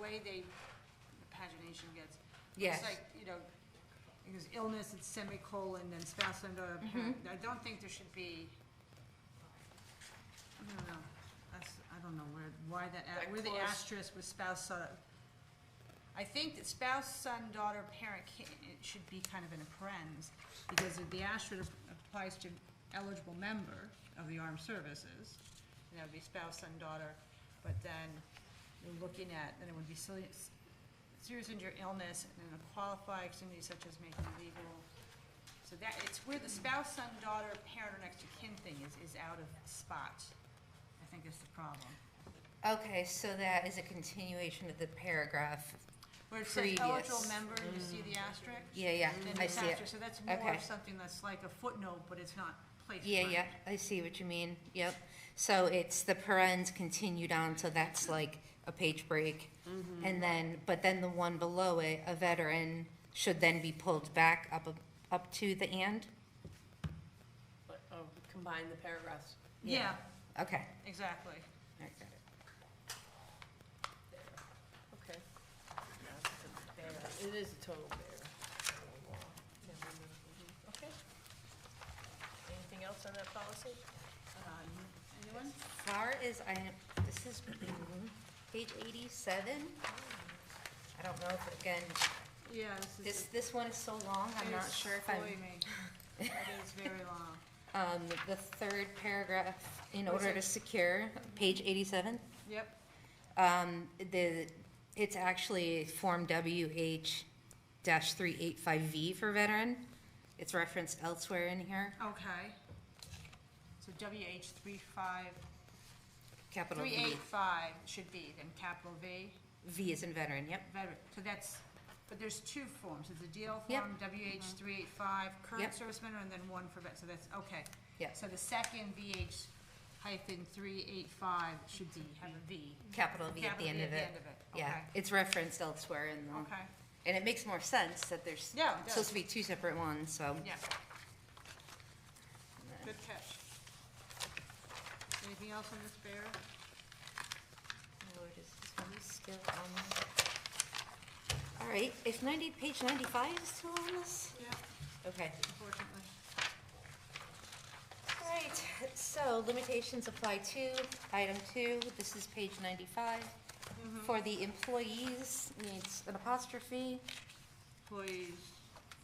way they, pagination gets. Yes. It's like, you know, because illness, it's semicolon, then spouse and other parent. I don't think there should be, I don't know, that's, I don't know where, why that, a- That where the clause- asterisk with spouse, son. I think that spouse, son, daughter, parent, ca- it should be kind of in a parens, because if the asterisk applies to eligible member of the armed services, and that would be spouse, son, daughter, but then you're looking at, then it would be serious, serious injury, illness, and then a qualified extremity such as making legal. So that, it's where the spouse, son, daughter, parent, or next of kin thing is, is out of spot, I think is the problem. Okay, so that is a continuation of the paragraph. Where it says eligible Previous. member, you see the asterisk? Yeah, yeah, Then I it's see asterisk, it. so that's more Okay. of something that's like a footnote, but it's not placed. Yeah, right. yeah, I see what you mean, yep. So it's the parens continued on, so that's like a page break. Mm-hmm. And then, but then the one below it, a veteran, should then be pulled back up, a- up to the and? But, oh, combine the paragraphs. Yeah, Okay, exactly. I got it. Okay. It is a total bear. Okay. Anything else on that policy? Um, Anyone? Far as I, this is page eighty-seven. I don't know if, again, Yeah, this this, is. this one is so long, I'm not it's sure if I'm. fully me. It is very long. Um, the third paragraph, in What is order it? to secure, page eighty-seven, Yep, um, the, it's actually Form WH dash three eight five V for veteran. It's referenced elsewhere in here, okay. So WH three five, capital three V. eight five should be, then capital V, V is in veteran, yep. veteran. So that's, but there's two forms, it's a DL Yep. Mm-hmm. form, WH three eight five, current Yep. service member, and then one for vet, so that's, okay. Yep. So the second VH hyphen three eight five should be, have a V. Capital V at Capital the end V of it. Yeah, Okay, it's referenced elsewhere in the, okay, and it makes more sense that there's Yeah, it supposed does. to be two separate ones, so. yeah. Good catch. Anything else on this, Bear? Lord, is this one still on? All right, if ninety, page ninety-five is still on this? Yeah, Okay. unfortunately. All right, so limitations apply to item two, this is page ninety-five. For the employees, needs an apostrophe. Employees,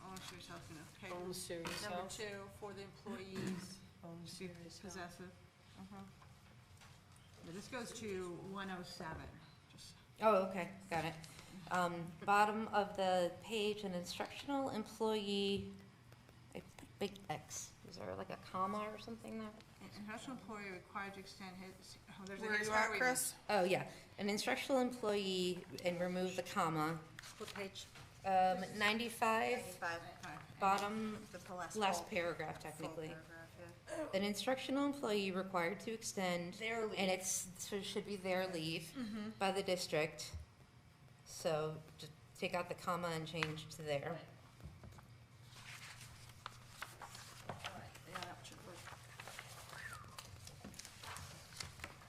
officers, health, and okay. Own serious Number health. two, for the employees, Own Mm-hmm. should be possessive. Now, This goes to one oh seven, just, Oh, okay, got it. Um, bottom of the page, an instructional employee, I put big X, is there like a comma or something there? an international employee required to extend his, oh, there's a. Where you at, Chris? Oh, yeah, an instructional employee, and remove the comma. What page? Um, ninety-five, Ninety-five, bottom, the last. last full- paragraph full technically. paragraph, yeah. An instructional employee required to extend, Their and leave. it's, so it should be their leave by the district. So just take out the comma and change to there. Yeah, that should work.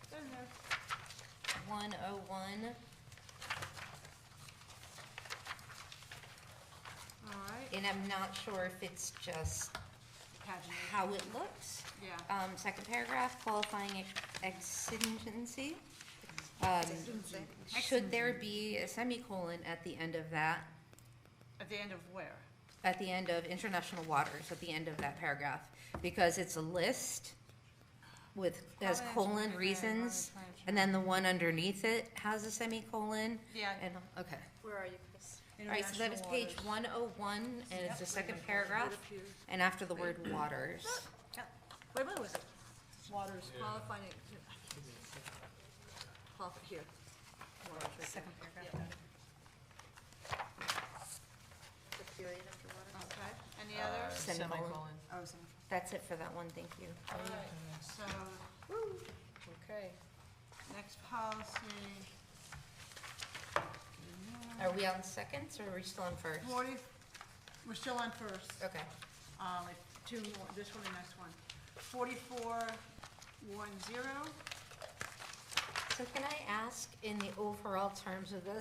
Don't know. One oh one, All right, and I'm not sure if it's just paginate, how it looks. yeah. Um, second paragraph, qualifying ex- exigency. Um, should there be a semicolon at the end of that, At the end of where? at the end of international waters, at the end of that paragraph? Because it's a list with, has Comments within colon the reasons, environmental plan. and then the one underneath it has a semicolon, Yeah. and, okay. Where are you, Chris? All right, so that is page one oh one, and it's the second paragraph, and after the word waters. Wait, what was it? Waters qualifying. Qualify, here. Second paragraph. The period after water? Uh, Okay, any others? Semicolon. Oh, seven. That's it for that one, thank you. All right, so, Okay. next policy, Are we on seconds, or are we still on first? forty, we're still on first. Okay, Um, like two more, this one and next one. Forty-four, one, zero. so can I ask, in the overall terms of this,